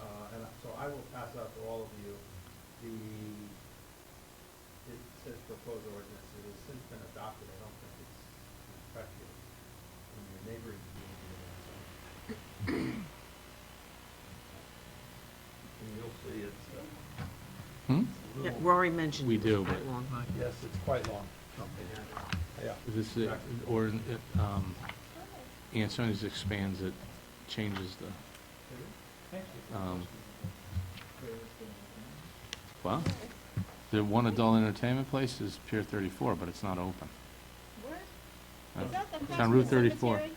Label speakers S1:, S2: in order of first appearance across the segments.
S1: Uh, I will pass out to all of you the, it says proposed ordinance, it has since been adopted, I don't think it's effective in your neighboring community. so. And you'll see it's, uh,
S2: Hmm?
S1: a
S3: Yeah,
S1: little-
S3: Rory mentioned.
S2: We
S3: it was
S2: do,
S3: quite
S2: but-
S3: long.
S1: yes, it's quite long. Yeah.
S2: This, uh, or, uh, um, yeah, sometimes just expands it, changes the, um, well, the one adult entertainment place is Pier thirty-four, but it's not open.
S4: Is that the
S2: It's
S4: across
S2: on
S4: from
S2: Route
S4: the
S2: 34.
S4: cemetery?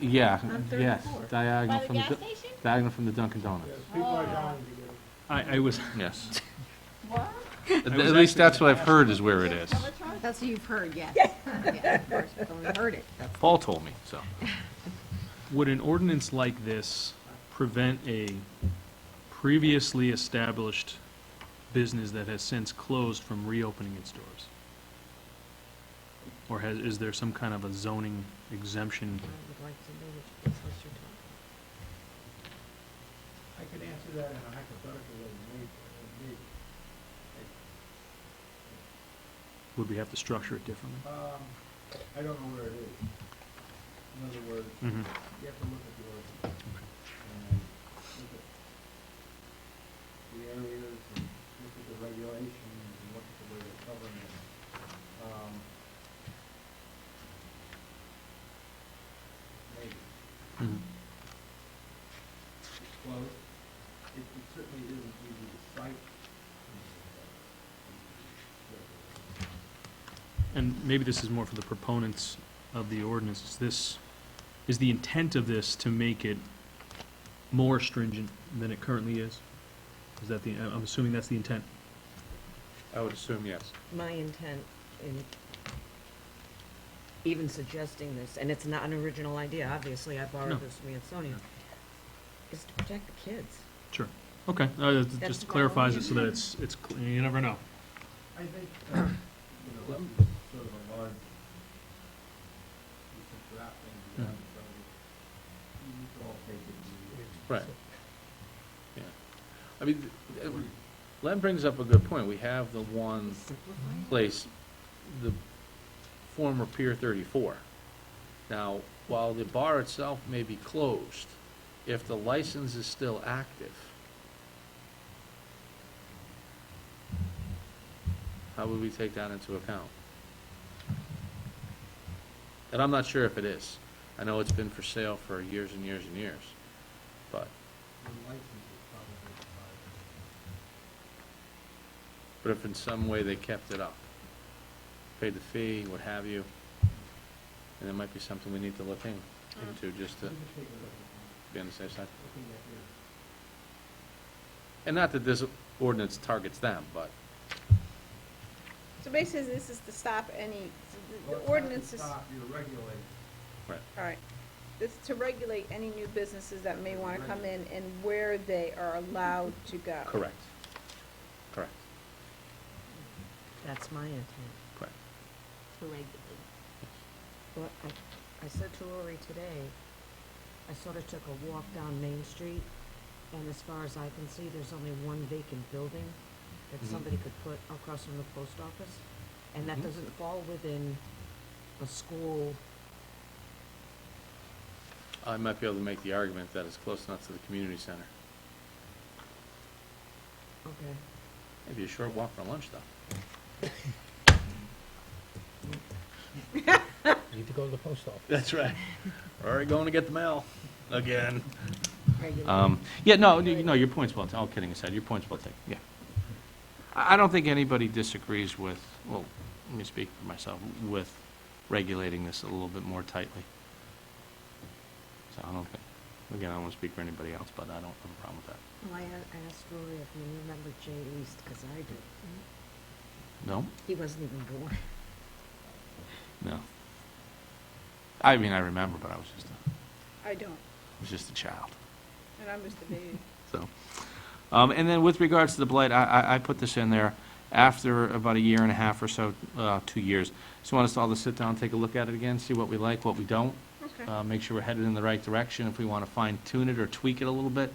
S2: Yeah,
S3: On
S2: yes,
S3: 34.
S2: diagonal
S4: By the
S2: from,
S4: gas
S2: the
S4: station?
S2: diagonal from the Dunkin' Donuts.
S1: Yes, people are
S4: Oh.
S1: dying to get it.
S5: I, I was,
S2: Yes.
S4: What?
S2: At
S5: I
S2: at
S5: was
S2: least
S5: actually
S2: that's what I've heard is where it is.
S4: Peloton?
S6: That's what you've heard, yes. Yeah, of course, we've only heard it.
S2: Paul told me, so.
S5: would an ordinance like this prevent a previously established business that has since closed from reopening its doors? Or has, is there some kind of a zoning exemption?
S3: I would like to know which business you're talking
S1: I could answer that in a hypothetical way, maybe, maybe.
S5: Would we have to structure it differently?
S1: Um, I don't know where it is. In other words,
S5: Mhm.
S1: you have to look at the ordinance and look at the areas and look at the regulations and look at the way they're covering it. Um, maybe.
S5: Mhm.
S1: It's close. It it certainly isn't easy to cite.
S5: And maybe this is more for the proponents of the ordinance, is this, is the intent of this to make it more stringent than it currently is? Is that the, I- I'm assuming that's the intent?
S2: I would assume yes.
S3: about. My intent in even suggesting this, and it's not an original idea, obviously, I
S5: No.
S3: borrowed this from Ansonia, is to protect the kids.
S5: Sure, okay, uh, it
S3: That's
S5: just
S3: my
S5: clarifies it
S3: only-
S5: so that it's, it's, cl- you never know.
S1: I think, uh, you know, this is sort of a large, it's a draft thing, you know, so you need to all take it.
S2: Right. Yeah. I mean, th- Len brings up a good point. We have the one
S3: Simplify it.
S2: place, the former Pier 34. Now, while the bar itself may be closed, if the license is still active, how would we take that into account? And I'm not sure if it is. I know it's been for sale for years and years and years, but,
S1: The license is probably expired.
S2: but if in some way they kept it up, paid the fee, what have you, and it might be something we need to look in, into, just to
S1: You can take a look at it,
S2: be on the safe side.
S1: looking at your,
S2: And not that this ordinance targets them, but,
S4: So basically, this is to stop any,
S1: well, it's not
S4: the
S1: to
S4: ordinance is, all
S1: Stop your regulations.
S2: right,
S4: right. This is to regulate any new businesses that may want to come in and where they are allowed to go.
S2: correct. Correct,
S3: That's my intent.
S2: correct.
S3: Well, I, I said to Lori today, I sort of took a walk down Main Street, and as far as I can see, there's only one vacant building that
S2: Mhm.
S3: somebody could put across from the post office, and that
S2: Mhm.
S3: doesn't fall within a school,
S2: I might be able to make the argument that it's close enough to the community center.
S3: okay.
S2: Maybe a short walk for lunch, though.
S7: Need to go to the post office.
S2: That's right. Or going to get the mail, again.
S3: regulated.
S2: Um, yeah, no, you no, your point's well, ta- all kidding aside, your point's well taken, yeah. I, I don't think anybody disagrees with, well, let me speak for myself, with regulating this a little bit more tightly. So I don't think, again, I don't want to speak for anybody else, but I don't have a problem with that.
S3: Well, I a- asked Lori if you remember Jay East, because I do.
S2: No?
S3: He wasn't even born.
S2: No. I mean, I remember, but I was just, a
S4: I don't,
S2: I was just a child.
S4: and I'm just a baby.
S2: So, um, and then with regards to the blight, I, I, I put this in there after about a year and a half or so, uh, two years. Just want us all to sit down, take a look at it again, see what we like, what we don't,
S4: Okay.
S2: uh, make sure we're headed in the right direction, if we want to fine tune it or tweak it a little bit.